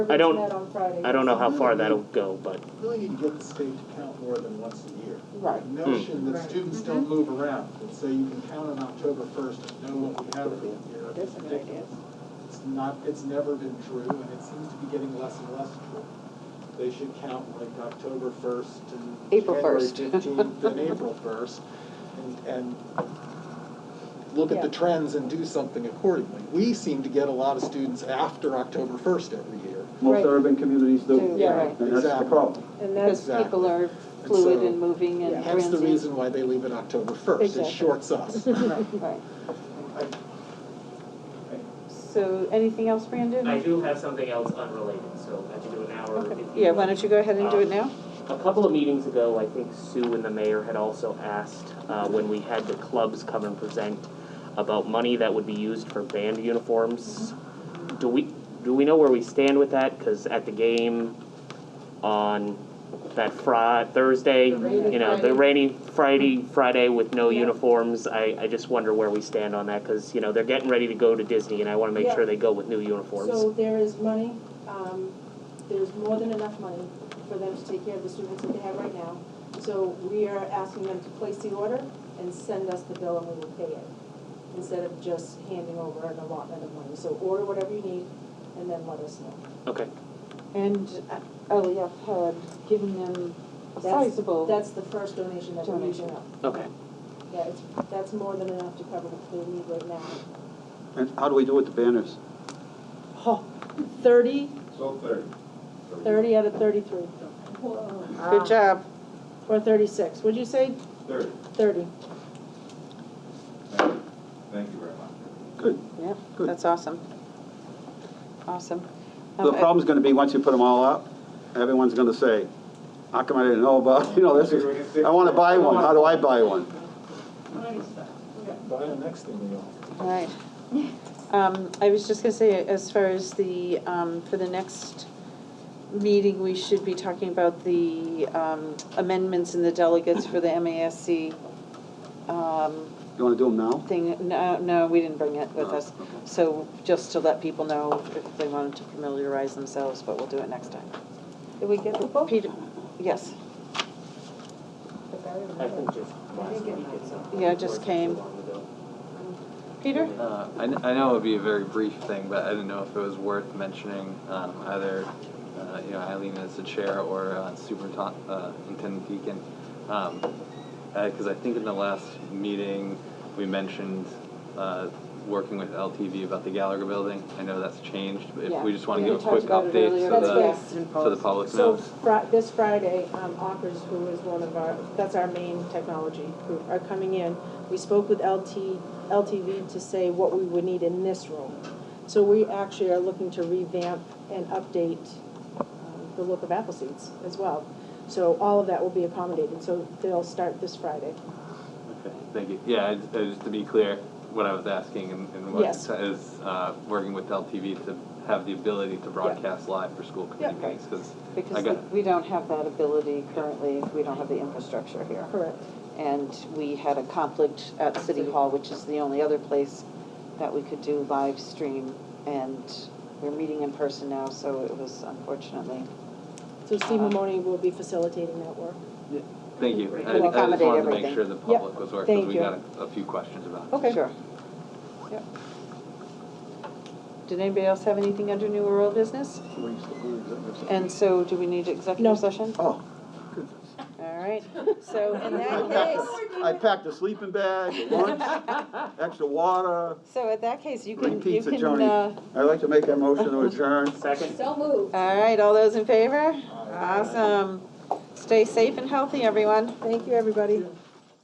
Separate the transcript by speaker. Speaker 1: I don't-
Speaker 2: That on Friday.
Speaker 1: I don't know how far that'll go, but
Speaker 3: Really, you get the state to count more than once a year.
Speaker 4: Right.
Speaker 3: The Notion that
Speaker 4: Right.
Speaker 3: students don't move around, and so you can count on October first and know what we have for the year.
Speaker 4: That's an idea.
Speaker 3: It's not, it's never been true, and it seems to be getting less and less true. They should count like October first and
Speaker 4: April
Speaker 3: January
Speaker 4: 1st.
Speaker 3: fifteenth and April first, and, and look at the
Speaker 2: Yeah.
Speaker 3: trends and do something accordingly. We seem to get a lot of students after October first every year.
Speaker 5: Most
Speaker 2: Right.
Speaker 5: urban communities do.
Speaker 4: Do,
Speaker 2: Yeah, right.
Speaker 5: And that's the
Speaker 3: Exactly.
Speaker 5: problem.
Speaker 2: And
Speaker 4: Because
Speaker 2: that's,
Speaker 3: Exactly.
Speaker 4: people are
Speaker 3: And
Speaker 4: fluid
Speaker 3: so-
Speaker 4: and moving and
Speaker 3: Hence the
Speaker 4: transient.
Speaker 3: reason why they leave it October first, it
Speaker 2: Exactly.
Speaker 3: shorts us.
Speaker 4: Right. So, anything else, Brandon?
Speaker 6: I do have something else unrelated, so I should do an hour.
Speaker 4: Okay.
Speaker 6: if you
Speaker 4: Yeah,
Speaker 6: want.
Speaker 4: why don't you go ahead and do it now?
Speaker 6: A couple of meetings ago, I think Sue and the mayor had also asked, uh, when we had the clubs come and present, about money that would be used for band uniforms. Do we, do we know where we stand with that? Because at the game on that Fri- Thursday, you know, the rainy Friday, Friday with no uniforms, I, I just wonder where we stand on that, because, you know, they're getting ready to go to Disney, and I want to make
Speaker 2: Yeah.
Speaker 6: sure they go with new uniforms.
Speaker 2: so there is money, um, there's more than enough money for them to take care of the students that they have right now. So we are asking them to place the order and send us the bill and we will pay it, instead of just handing over an allotment of money. So order whatever you need and then let us know.
Speaker 6: Okay.
Speaker 4: And Eliab had given them a
Speaker 2: That's-
Speaker 4: sizable,
Speaker 2: That's the first donation that we're using up.
Speaker 6: Okay.
Speaker 2: Yeah, it's, that's more than enough to cover what they need right now.
Speaker 5: And how do we do with the banners?
Speaker 2: Oh, thirty,
Speaker 7: So thirty.
Speaker 2: thirty out of thirty-three,
Speaker 4: good job.
Speaker 2: or Ah. thirty-six, what'd you say,
Speaker 7: Thirty.
Speaker 2: thirty?
Speaker 7: Thank you. Thank you very much.
Speaker 5: Good.
Speaker 4: Yep,
Speaker 5: Good.
Speaker 4: that's awesome. Awesome. Um,
Speaker 5: The problem's gonna be, once you put them all up, everyone's gonna say, how come I didn't know about, you know, this is, I wanna buy one, how do I buy one?
Speaker 3: Buy the next thing we all.
Speaker 4: All right. Um, I was just gonna say, as far as the, um, for the next meeting, we should be talking about the, um, amendments in the delegates for the MASC, um,
Speaker 5: You wanna do them now?
Speaker 4: thing, no, no, we didn't bring it with
Speaker 8: Oh,
Speaker 5: No,
Speaker 4: us.
Speaker 5: okay.
Speaker 4: So just to let people know if they wanted to familiarize themselves, but we'll do it next time.
Speaker 2: Did we get the book?
Speaker 4: Peter,
Speaker 6: I
Speaker 4: yes,
Speaker 6: think just last week it's something.
Speaker 4: Yeah, it just came. Peter?
Speaker 8: Uh, I, kn- I know it would be a very brief thing, but I didn't know if it was worth mentioning um, either, uh, you know, Eileen as the chair or uh, Superintendent uh, Intendant Deacon. Because I think in the last meeting, we mentioned uh, working with LTV about the Gallagher building. I know that's changed, but if
Speaker 4: Yeah.
Speaker 8: we just want to
Speaker 4: We
Speaker 8: give a
Speaker 4: talked
Speaker 8: quick
Speaker 4: about it
Speaker 8: update
Speaker 4: earlier.
Speaker 8: so
Speaker 2: That's
Speaker 8: the,
Speaker 2: right.
Speaker 4: Yes.
Speaker 8: so the public
Speaker 2: So
Speaker 8: knows.
Speaker 2: Fri- this Friday, um, Akers, who is one of our, that's our main technology group, are coming in. We spoke with LT, LTV to say what we would need in this room. So we actually are looking to revamp and update um, the look of Appleseeds as well. So all of that will be accommodated, so they'll start this Friday.
Speaker 8: Okay, thank you. Yeah, I just, I just to be clear, what I was asking and, and what
Speaker 2: Yes.
Speaker 8: is uh, working with LTV to have the ability to broadcast live for school committee
Speaker 2: Yeah.
Speaker 8: meetings because I
Speaker 4: Because
Speaker 8: got
Speaker 4: we don't have that ability currently, we don't have the infrastructure here.
Speaker 2: Correct.
Speaker 4: And we had a conflict at City Hall, which is the only other place that we could do live stream. And we're meeting in person now, so it was unfortunately
Speaker 2: So Steve Mamoni will be facilitating that work.
Speaker 8: Thank you. I, I
Speaker 4: We'll
Speaker 8: just
Speaker 4: accommodate
Speaker 8: wanted to
Speaker 4: everything.
Speaker 8: make sure the
Speaker 2: Yep,
Speaker 8: public was aware
Speaker 2: thank
Speaker 8: because we
Speaker 2: you.
Speaker 8: got a, a few questions about it.
Speaker 4: Okay. Sure. Yep. Did anybody else have anything under new or old business? And so do we need
Speaker 2: No.
Speaker 4: executive session?
Speaker 5: Oh,
Speaker 4: All right, so in
Speaker 5: I
Speaker 4: that
Speaker 5: packed,
Speaker 4: case,
Speaker 5: a- I packed a sleeping bag, a lunch, extra water,
Speaker 4: so in that case, you
Speaker 5: free
Speaker 4: can, you
Speaker 5: pizza,
Speaker 4: can,
Speaker 5: Joni.
Speaker 4: uh,
Speaker 5: I'd like to make a motion to adjourn.
Speaker 6: Second?
Speaker 4: all right, all those in favor? Awesome. Stay safe and healthy, everyone.
Speaker 2: Thank you, everybody.